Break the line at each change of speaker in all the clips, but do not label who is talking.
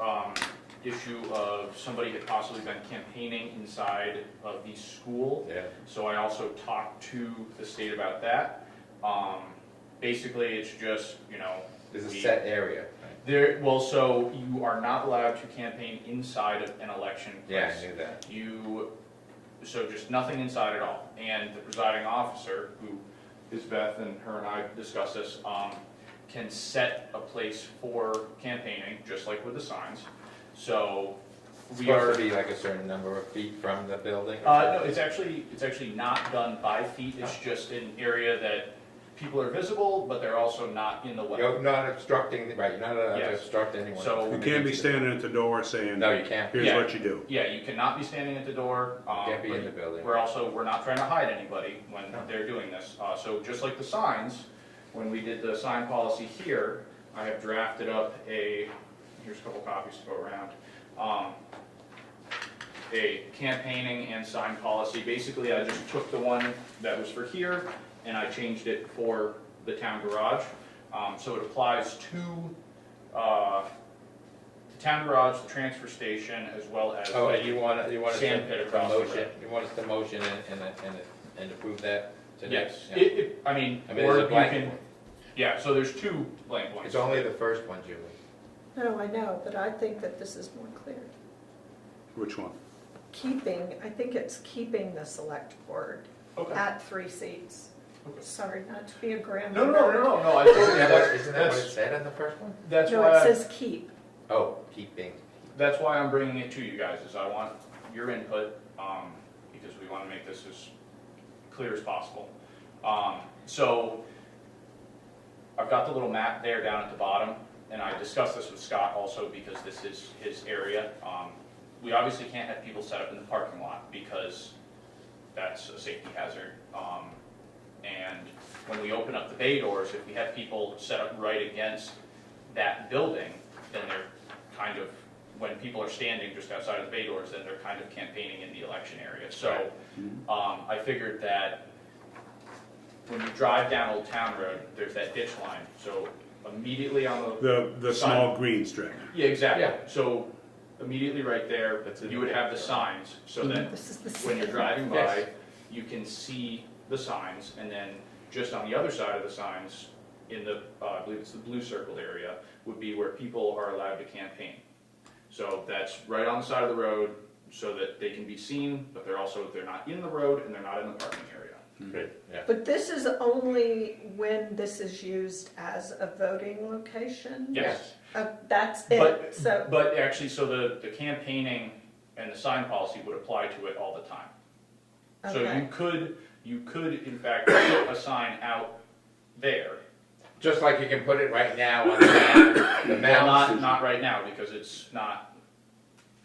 um, issue of somebody had possibly been campaigning inside of the school.
Yeah.
So I also talked to the state about that. Um, basically, it's just, you know.
There's a
we-
set area.
There, well, so you are not allowed to campaign inside of an election
Yeah, I
place.
knew that.
You, so just nothing inside at all. And the presiding officer, who is Beth and her and I discussed this, um, can set a place for campaigning, just like with the signs. So
It's
we are.
supposed to be like a certain number of feet from the building? or
Uh, no,
something?
it's actually, it's actually not done by feet, it's just an area that people are visible, but they're also not in the way.
You're not obstructing, right, you're not allowed to
Yes.
obstruct anyone.
So-
You can't be standing at the door saying,
No, you can't.
here's
Yeah.
what you do.
Yeah, you cannot be standing at the door. um,
Can't be in the
but
building.
We're also, we're not trying to hide anybody when
No.
they're doing this. Uh, so just like the signs, when we did the sign policy here, I have drafted up a, here's a couple copies to go around. Um, a campaigning and sign policy. Basically, I just took the one that was for here and I changed it for the town garage. Um, so it applies to, uh, the town garage, the transfer station, as well as.
Oh,
the-
and you want, you want us
Sand pit
to,
across the
motion,
road.
you want us to motion and, and, and- and approve that today?
Yes,
Yeah.
it, it, I mean,
I mean,
or
there's a
you
blank
can,
one.
yeah, so there's two blank ones.
It's only the first one, Julie.
No, I know, but I think that this is more clear.
Which one?
Keeping, I think it's keeping the select board
Okay.
at three seats.
Okay.
Sorry, not to be a grandma.
No, no, no, no, no, no, I totally,
Isn't that what-
that's,
isn't that what it
that's,
said on the first one?
that's
No,
why,
it
I-
says keep.
Oh, keeping,
that's why I'm bringing it to you guys, is I want your input, um, because we wanna make this as clear as possible. Um, so, I've got the little map there down at the bottom, and I discussed this with Scott also because this is his area. Um, we obviously can't have people set up in the parking lot because that's a safety hazard. Um, and when we open up the bay doors, if we have people set up right against that building, then they're kind of, when people are standing just outside of the bay doors, then they're kind of campaigning in the election area. So, um, I figured that when you drive down Old Town Road, there's that ditch line, so immediately on the
The, the small green strip.
yeah, exactly.
Yeah.
So immediately right there,
That's it.
you would have the signs, so that
This is the
when
same.
you're driving by,
Yes.
you can see the signs, and then just on the other side of the signs, in the, uh, I believe it's the blue circled area, would be where people are allowed to campaign. So that's right on the side of the road, so that they can be seen, but they're also, they're not in the road and they're not in the parking area.
great, yeah.
But this is only when this is used as a voting location?
Yes.
Uh, That's
But-
it, so,
But actually, so the, the campaigning and the sign policy would apply to it all the time. So you
Okay.
could, you could in fact put a sign out there,
Just like you can put it right now on the map, the
Well, not,
mountain.
not right now, because it's not,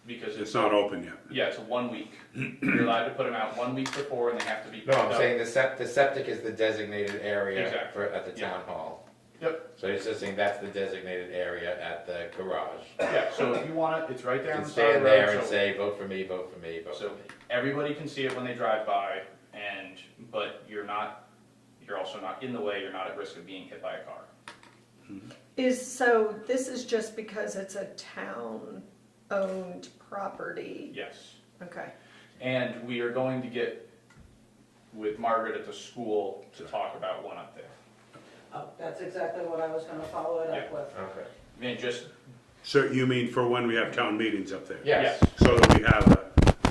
because
It's
it's,
not open yet.
yeah, it's one week. You're allowed to put them out one week before and they have to be.
No,
picked
I'm
up.
saying the sept, the septic is the designated area
Exactly.
for, at the
Yeah.
town hall.
Yep,
So it's just saying that's the designated area at the garage.
yeah, so if you want it, it's right
You
there on
can
the side of
stand
the
there
road,
and
so,
say, vote for me, vote for me, vote for
so
me.
everybody can see it when they drive by and, but you're not, you're also not in the way, you're not at risk of being hit by a car.
is, so this is just because it's a town-owned property?
Yes.
Okay.
And we are going to get with Margaret at the school to talk about one up there.
Oh, That's exactly what I was gonna follow it up
Yeah.
with.
Okay.
And just,
So you mean for when we have town meetings up there?
Yes.
yes.
So that we have a-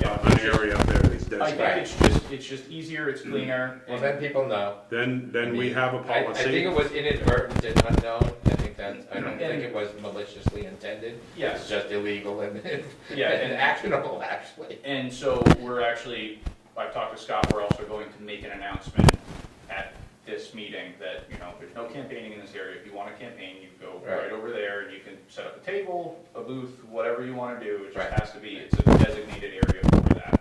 Yeah.
an area up there
I
that's
think
designated.
Right.
it's just, it's just easier, it's cleaner,
Well,
and
then people know.
Then, then we
I mean,
have a
I- I think
policy.
it was inadvertent and unknown. I think that's, I don't think it was maliciously intended. It's
yes.
just illegal and,
Yeah,
and
and-
actionable, actually.
And so we're actually, I've talked to Scott, we're also going to make an announcement at this meeting that, you know, there's no campaigning in this area. If you want to campaign, you go
Right.
right over there and you can set up a table, a booth, whatever you want to do. It just
Right.
has to be, it's a designated area for that.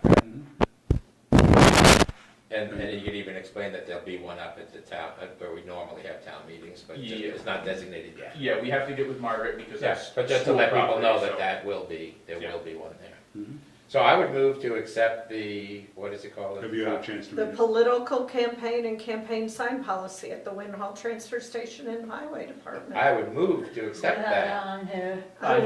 And, and you could even explain that there'll be one up at the town, uh, where we normally have town meetings, but just-
Yeah.
it's not designated yet.
Yeah, we have to get with Margaret because that's.
Yes, but just to let
school
people know
property,
that
so-
that will be, there
Yeah.
will be one there.
Mm-hmm.
So I would move to accept the, what is it called?
Have you had a chance to
The
read it?
political campaign and campaign sign policy at the Win Hall Transfer Station and Highway Department.
I would move to accept that.
on here.
I